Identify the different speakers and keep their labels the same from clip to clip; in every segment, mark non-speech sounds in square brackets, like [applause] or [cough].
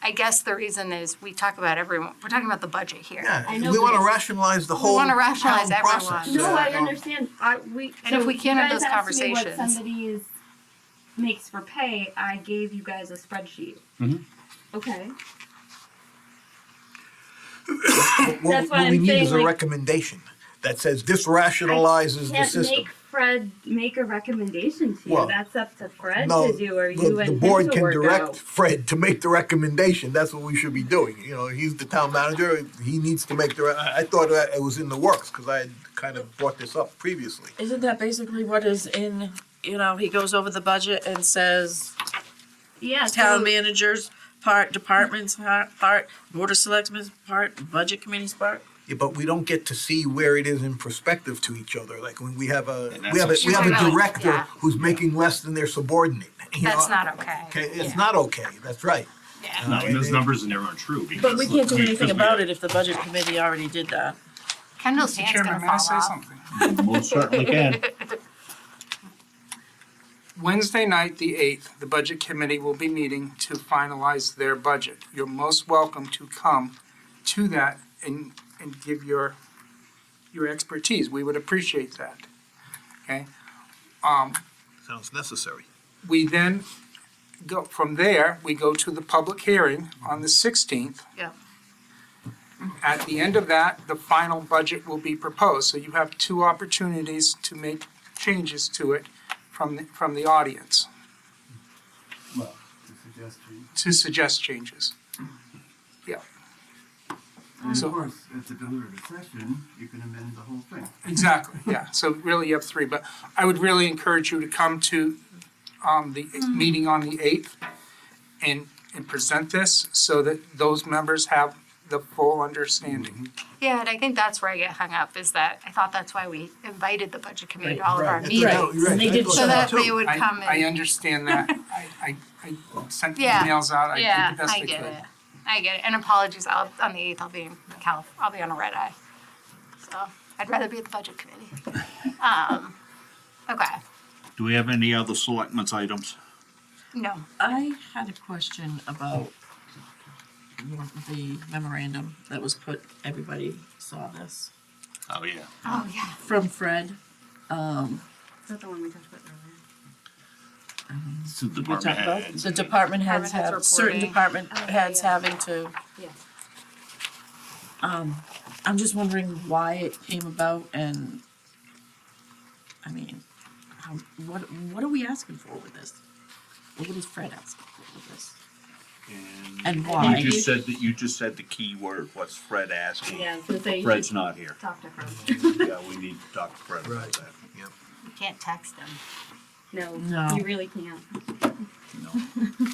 Speaker 1: I guess the reason is we talk about everyone, we're talking about the budget here.
Speaker 2: Yeah,
Speaker 3: I know,
Speaker 2: we
Speaker 3: but
Speaker 2: want to
Speaker 3: it's-
Speaker 2: rationalize the whole
Speaker 1: wanna
Speaker 2: town
Speaker 1: rationalize everyone.
Speaker 2: process.
Speaker 3: No, I
Speaker 2: Yeah.
Speaker 3: understand. I we
Speaker 1: And if
Speaker 3: so
Speaker 1: we can't
Speaker 3: you
Speaker 1: have
Speaker 3: guys
Speaker 1: those
Speaker 3: asked me what
Speaker 1: conversations.
Speaker 3: Somebody's makes for pay. I gave you guys a spreadsheet.
Speaker 2: Mm-hmm.
Speaker 4: Mhm.
Speaker 3: Okay.
Speaker 2: What- what-
Speaker 3: That's what
Speaker 2: What we
Speaker 3: I'm
Speaker 2: need is
Speaker 3: saying,
Speaker 2: a
Speaker 3: like-
Speaker 2: recommendation that says this rationalizes the
Speaker 3: Can't
Speaker 2: system.
Speaker 3: make Fred make a recommendation to you.
Speaker 2: Well,
Speaker 3: That's up to Fred
Speaker 2: No,
Speaker 3: to do, or you
Speaker 2: the,
Speaker 3: and
Speaker 2: the
Speaker 3: him
Speaker 2: board
Speaker 3: to
Speaker 2: can
Speaker 3: work
Speaker 2: direct
Speaker 3: out.
Speaker 2: Fred to make the recommendation. That's what we should be doing. You know, he's the town manager. He needs to make the. re- I, I thought that it was in the works because I had kind of brought this up previously.
Speaker 5: Isn't that basically what is in, you know, he goes over the budget and says,
Speaker 3: Yeah.
Speaker 5: town
Speaker 3: so-
Speaker 5: managers part, departments part, part, board of selectmen's part, budget committees part?
Speaker 2: Yeah, but we don't get to see where it is in perspective to each other. Like when we have a
Speaker 4: And that's
Speaker 2: we have a, we have
Speaker 1: upsetting.
Speaker 2: a director
Speaker 1: Yeah.
Speaker 2: who's making less than their subordinate. you know?
Speaker 1: That's not okay.
Speaker 2: Okay, it's
Speaker 1: Yeah.
Speaker 2: not okay. That's right.
Speaker 4: And that- those numbers are never untrue because.
Speaker 5: But we can't do
Speaker 4: we-
Speaker 5: anything
Speaker 4: because we-
Speaker 5: about it if the budget committee already did that.
Speaker 1: Kendall Stan's gonna
Speaker 6: Chairman, may I
Speaker 1: fall
Speaker 6: say
Speaker 1: off.
Speaker 6: something?
Speaker 4: Most
Speaker 5: [laughs]
Speaker 4: certainly can.
Speaker 6: Wednesday night, the eighth, the Budget Committee will be meeting to finalize their budget. You're most welcome to come to that and, and give your, your expertise. We would appreciate that, okay? Um,
Speaker 2: Sounds necessary.
Speaker 6: we then go, from there, we go to the public hearing on the sixteenth.
Speaker 1: Yeah.
Speaker 6: At the end of that, the final budget will be proposed, so you have two opportunities to make changes to it from, the- from the audience,
Speaker 7: Well, the suggestion,
Speaker 6: to suggest changes.
Speaker 7: and
Speaker 6: So-
Speaker 7: of course, at the deliberative session, you can amend the whole thing.
Speaker 6: Exactly, yeah, so really you have three, but I would really encourage you to come to, um, the
Speaker 1: Mm.
Speaker 6: meeting on the eighth and, and present this so that those members have the full understanding.
Speaker 1: Yeah, and I think that's where I get hung up, is that, I thought that's why we invited the budget committee to all of our
Speaker 2: Right. That's right.
Speaker 1: meetings.
Speaker 2: You're right.
Speaker 5: They
Speaker 2: I
Speaker 5: did
Speaker 2: thought
Speaker 1: So that
Speaker 2: too.
Speaker 1: they would
Speaker 6: I-
Speaker 1: come
Speaker 6: I
Speaker 1: and,
Speaker 6: understand
Speaker 1: [laughs]
Speaker 6: that. I, I, I sent
Speaker 1: Yeah.
Speaker 6: emails out. I
Speaker 1: yeah,
Speaker 6: did the best I
Speaker 1: I
Speaker 6: could.
Speaker 1: get it. I get it, and apologies, I'll, on the eighth, I'll be in Calif, I'll be on a red eye. So, I'd rather be at the budget committee.
Speaker 2: [laughs]
Speaker 1: Um, okay,
Speaker 4: Do we have any other selectments items?
Speaker 1: no,
Speaker 5: I had a question about the memorandum that was put, everybody saw this,
Speaker 4: Oh, yeah.
Speaker 1: oh, yeah.
Speaker 5: from Fred.
Speaker 3: Is that the one we talked about earlier?
Speaker 4: It's the
Speaker 5: We
Speaker 4: department
Speaker 5: talked about
Speaker 4: heads.
Speaker 5: The department heads
Speaker 1: Department heads
Speaker 5: have, certain
Speaker 1: reporting.
Speaker 5: department
Speaker 3: Oh,
Speaker 5: heads
Speaker 3: yeah.
Speaker 5: having to.
Speaker 3: Yeah.
Speaker 5: Um, I'm just wondering why it came about and, I mean, how, what, what are we asking for with this? What is Fred asking for with this? And why?
Speaker 4: You just said that, you just said the key word, what's Fred asking?
Speaker 3: Yeah, I was gonna say you
Speaker 4: Fred's
Speaker 3: should
Speaker 4: not here.
Speaker 3: talk to Fred.
Speaker 4: Yeah, we need to talk to Fred about
Speaker 2: Right.
Speaker 4: that.
Speaker 2: Yep.
Speaker 1: You can't text them.
Speaker 3: No,
Speaker 5: No.
Speaker 3: you really can't.
Speaker 4: No.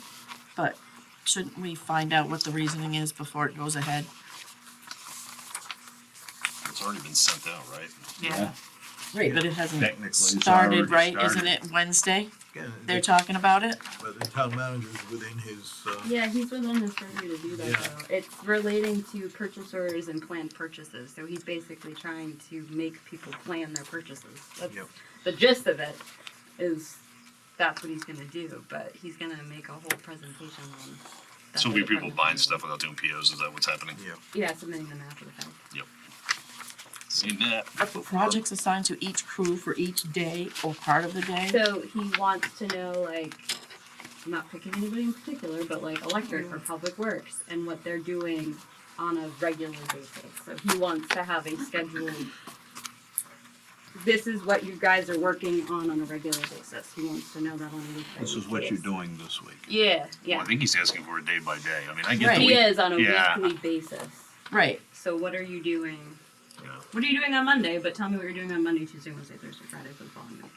Speaker 5: But shouldn't we find out what the reasoning is before it goes ahead?
Speaker 8: It's already been sent out, right?
Speaker 4: Yeah.
Speaker 5: Right, but it hasn't
Speaker 4: Technically, it's
Speaker 5: started,
Speaker 4: already
Speaker 5: right?
Speaker 4: started.
Speaker 5: Isn't it Wednesday?
Speaker 2: Yeah,
Speaker 5: They're talking about it?
Speaker 2: but uh, the town manager's within his. Uh,
Speaker 3: Yeah, he's within his purview to do that
Speaker 2: Yeah.
Speaker 3: though. It's relating to purchasers and planned purchases, so he's basically trying to make people plan their purchases. That's
Speaker 2: Yep.
Speaker 3: the gist of it is that's what he's gonna do, but he's gonna make a whole presentation on that
Speaker 8: So
Speaker 3: the
Speaker 8: we people
Speaker 3: department
Speaker 8: buying
Speaker 3: can-
Speaker 8: stuff without doing POs, is that what's happening?
Speaker 2: Yeah.
Speaker 3: Yeah, submitting them after the fact.
Speaker 8: Seen that.
Speaker 5: Are projects assigned to each crew for each day or part of the day?
Speaker 3: So he wants to know like I'm not picking anybody in particular, but like electric or public works and what they're doing on a regular basis. So he wants to have a schedule. This is what you guys are working on on a regular basis. He wants to know that on a weekly
Speaker 4: This is what you're doing this week.
Speaker 3: Yeah,
Speaker 8: Well,
Speaker 3: yeah.
Speaker 8: I think he's asking for it day by day. I mean, I get the
Speaker 5: Right.
Speaker 3: He
Speaker 8: week.
Speaker 3: is on a
Speaker 8: Yeah.
Speaker 3: weekly basis.
Speaker 5: Right,
Speaker 3: So what are you doing?
Speaker 8: Yeah.
Speaker 3: What are you doing on Monday? But tell me what you're doing on Monday, Tuesday, Wednesday, Thursday, Friday for the following week.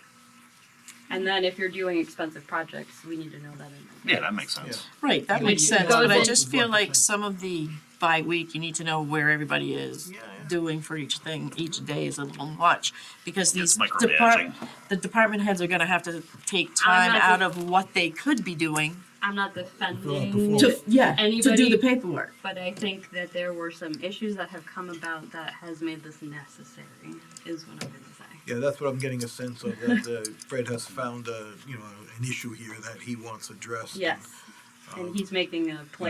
Speaker 3: And then if you're doing expensive projects, we need to know that in
Speaker 8: Yeah, that makes sense.
Speaker 5: right, that
Speaker 2: Yeah.
Speaker 5: makes sense,
Speaker 3: Goes
Speaker 5: but I
Speaker 3: in-
Speaker 5: just feel like some of the by week, you need to know where everybody is
Speaker 2: Yeah, yeah.
Speaker 5: doing for each thing, each day is a little much. Because these
Speaker 8: It's
Speaker 5: depart,
Speaker 8: micromanaging.
Speaker 5: the department heads are gonna have to take
Speaker 3: I'm
Speaker 5: time
Speaker 3: not
Speaker 5: out
Speaker 3: the-
Speaker 5: of what they could be doing
Speaker 3: I'm not defending,
Speaker 2: To-
Speaker 5: yeah,
Speaker 3: Anybody-
Speaker 5: paperwork.
Speaker 3: but I think that there were some issues that have come about that has made this necessary, is what I'm gonna say.
Speaker 2: Yeah, that's what I'm getting a sense of, that uh, Fred has found, uh, you know, an issue here that he wants addressed. and,
Speaker 3: Yes,
Speaker 2: um,
Speaker 3: and he's making a plan.